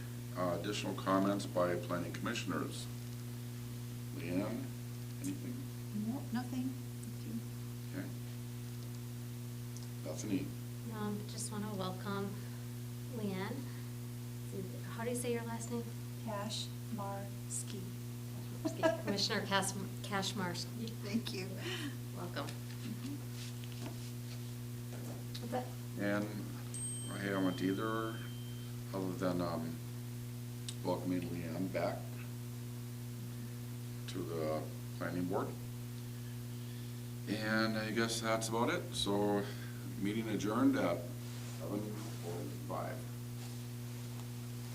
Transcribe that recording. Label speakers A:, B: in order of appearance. A: Uh, additional comments by planning commissioners? Leanne, anything?
B: No, nothing.
A: Okay. Bethany?
C: Um, just want to welcome Leanne. How do you say your last name?
B: Kashmarsky.
C: Commissioner Cas- Kashmarsky.
B: Thank you.
C: Welcome.
B: Mhm.
C: That's it.
A: And I haven't either, other than um, welcoming Leanne back to the planning board. And I guess that's about it. So meeting adjourned at seven forty-five.